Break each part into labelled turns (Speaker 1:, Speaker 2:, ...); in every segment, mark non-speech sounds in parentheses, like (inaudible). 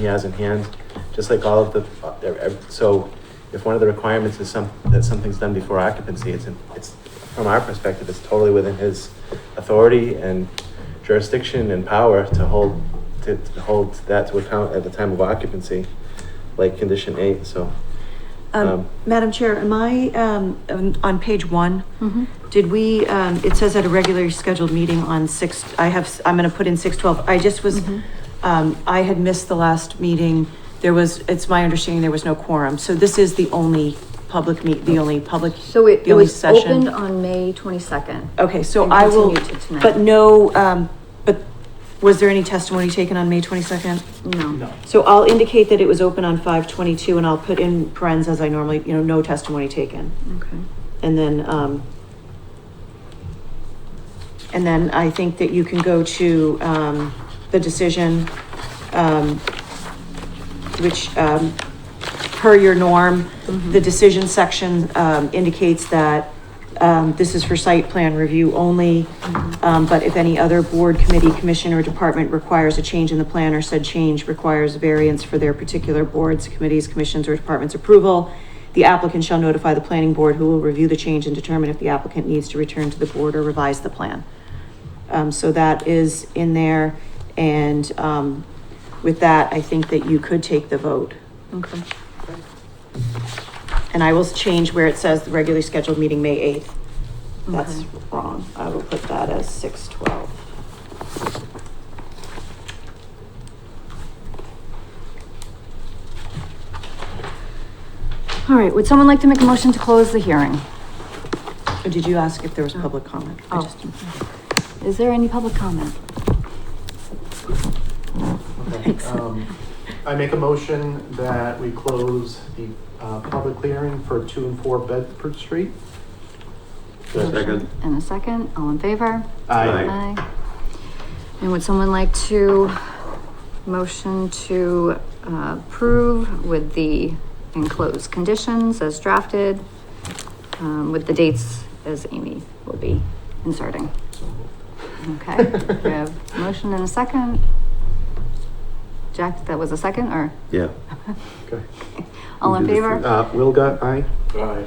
Speaker 1: he has in hand, just like all of the, uh, ev- ev- so if one of the requirements is some, that something's done before occupancy, it's, in- it's, from our perspective, it's totally within his authority and jurisdiction and power to hold, to to hold that to account at the time of occupancy, like condition eight, so. Um,
Speaker 2: Um, Madam Chair, am I, um, on- on page one,
Speaker 3: Mhm.
Speaker 2: did we, um, it says at a regularly scheduled meeting on six, I have, s- I'm gonna put in six twelve. I just was,
Speaker 3: Mhm.
Speaker 2: um, I had missed the last meeting. There was, it's my understanding there was no quorum, so this is the only public meet, the only public.
Speaker 3: So it,
Speaker 2: the
Speaker 3: it
Speaker 2: only
Speaker 3: was
Speaker 2: session.
Speaker 3: opened on May twenty-second.
Speaker 2: Okay, so
Speaker 3: and
Speaker 2: I will,
Speaker 3: continued to tonight.
Speaker 2: but no, um, but was there any testimony taken on May twenty-second?
Speaker 3: No.
Speaker 2: So I'll indicate that it was open on five twenty-two and I'll put in parentheses as I normally, you know, no testimony taken.
Speaker 3: Okay.
Speaker 2: And then, um, and then I think that you can go to, um, the decision, um, which, um, per your norm, the decision section, um, indicates that, um, this is for site plan review only. Um, but if any other board, committee, commission, or department requires a change in the plan or said change requires variance for their particular boards, committees, commissions, or departments approval, the applicant shall notify the planning board who will review the change and determine if the applicant needs to return to the board or revise the plan. Um, so that is in there, and, um, with that, I think that you could take the vote.
Speaker 3: Okay.
Speaker 2: And I will change where it says the regularly scheduled meeting, May eighth. That's
Speaker 3: Okay.
Speaker 2: wrong. I will put that as six twelve.
Speaker 3: All right, would someone like to make a motion to close the hearing?
Speaker 2: Oh, Did you ask if there was public comment? I
Speaker 3: Oh.
Speaker 2: just-
Speaker 3: Is there any public comment?
Speaker 4: Okay, um, I make a motion that we close the uh, public hearing for two and four Bedford Street.
Speaker 3: Motion And a second, all in favor?
Speaker 1: Aye.
Speaker 3: Aye. And would someone like to motion to uh, approve with the enclosed conditions as drafted? Um, with the dates as Amy will be inserting. Okay, we have motion and a second. Jack, that was a second or
Speaker 1: Yeah.
Speaker 4: Okay.
Speaker 3: (laughs) all in favor?
Speaker 4: Uh, Wilga, aye? Aye.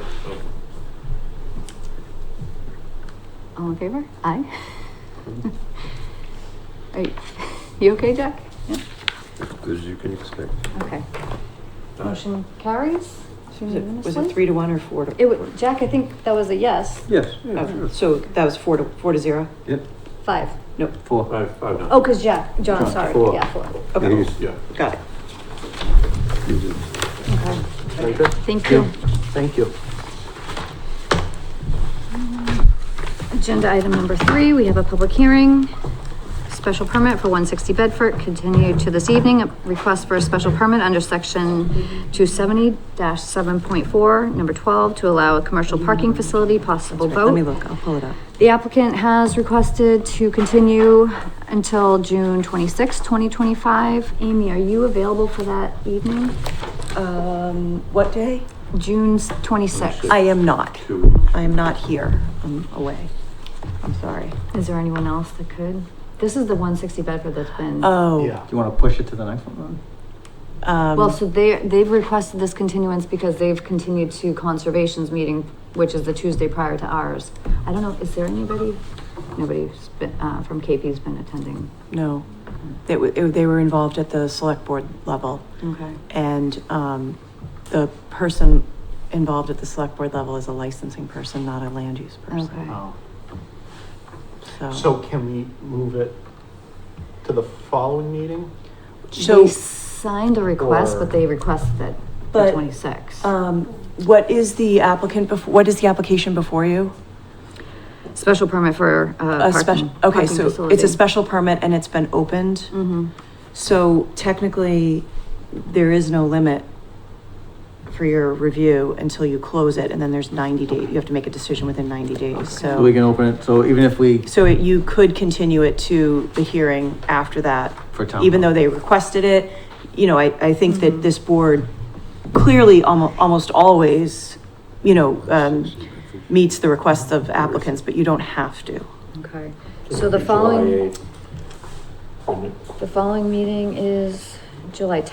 Speaker 3: All in favor? Aye. (laughs) Are you, you okay, Jack? Yeah,
Speaker 5: Good as you can expect.
Speaker 3: okay. Motion carries?
Speaker 2: Was it, was it
Speaker 3: unanimously?
Speaker 2: three to one or four to?
Speaker 3: It wa- Jack, I think that was a yes,
Speaker 5: Yes.
Speaker 2: Oh, So that was four to, four to zero?
Speaker 5: Yep,
Speaker 3: five.
Speaker 2: Nope,
Speaker 5: four.
Speaker 4: Five, five,
Speaker 3: Oh, cause Jack, John,
Speaker 5: John,
Speaker 3: sorry,
Speaker 5: four.
Speaker 3: yeah, four.
Speaker 2: okay,
Speaker 4: Yeah.
Speaker 2: got it.
Speaker 5: You did.
Speaker 3: Okay,
Speaker 4: Very good.
Speaker 3: thank you.
Speaker 4: Thank you.
Speaker 3: Agenda item number three, we have a public hearing. Special permit for one sixty Bedford, continued to this evening, A request for a special permit under section two seventy seven point four, number twelve, to allow a commercial parking facility, possible
Speaker 2: Right, Let me
Speaker 3: vote.
Speaker 2: look, I'll pull it up.
Speaker 3: The applicant has requested to continue until June twenty-sixth, twenty twenty-five. Amy, are you available for that evening?
Speaker 2: Um, what day?
Speaker 3: June twenty-sixth?
Speaker 2: I am not.
Speaker 5: Two.
Speaker 2: I am not here. I'm away. I'm sorry.
Speaker 3: Is there anyone else that could? This is the one sixty Bedford that's been.
Speaker 2: Oh,
Speaker 4: Yeah.
Speaker 6: Do you want to push it to the next one?
Speaker 3: Well,
Speaker 2: um,
Speaker 3: so they, they've requested this continuance because they've continued to conservation's meeting, which is the Tuesday prior to ours. I don't know, is there anybody, nobody's been, uh, from KP's been attending?
Speaker 2: no. They, wa- it- they were involved at the select board level.
Speaker 3: Okay.
Speaker 2: And, um, the person involved at the select board level is a licensing person, not a land use person,
Speaker 3: Okay.
Speaker 4: Oh.
Speaker 2: so.
Speaker 4: So can we move it to the following meeting?
Speaker 3: They signed a request,
Speaker 4: Or-
Speaker 3: but they requested it the
Speaker 2: But,
Speaker 3: twenty-sixth.
Speaker 2: Um, what is the applicant before, what is the application before you?
Speaker 3: Special permit for, uh,
Speaker 2: A
Speaker 3: parking.
Speaker 2: special, okay, so it's a special permit and it's been opened,
Speaker 3: hmm
Speaker 2: so technically, there is no limit for your review until you close it, and then there's ninety days, you have to make a decision within ninety days,
Speaker 6: So we
Speaker 2: so.
Speaker 6: can open it, so even if we,
Speaker 2: So it- you could continue it to the hearing after that.
Speaker 6: For town
Speaker 2: Even
Speaker 6: hall.
Speaker 2: though they requested it, you know, I, I think that this board clearly almo- almost always, you know, um, meets the requests of applicants, but you don't have to.
Speaker 3: okay. So the following,
Speaker 5: July 8th.
Speaker 3: the following meeting is July tenth.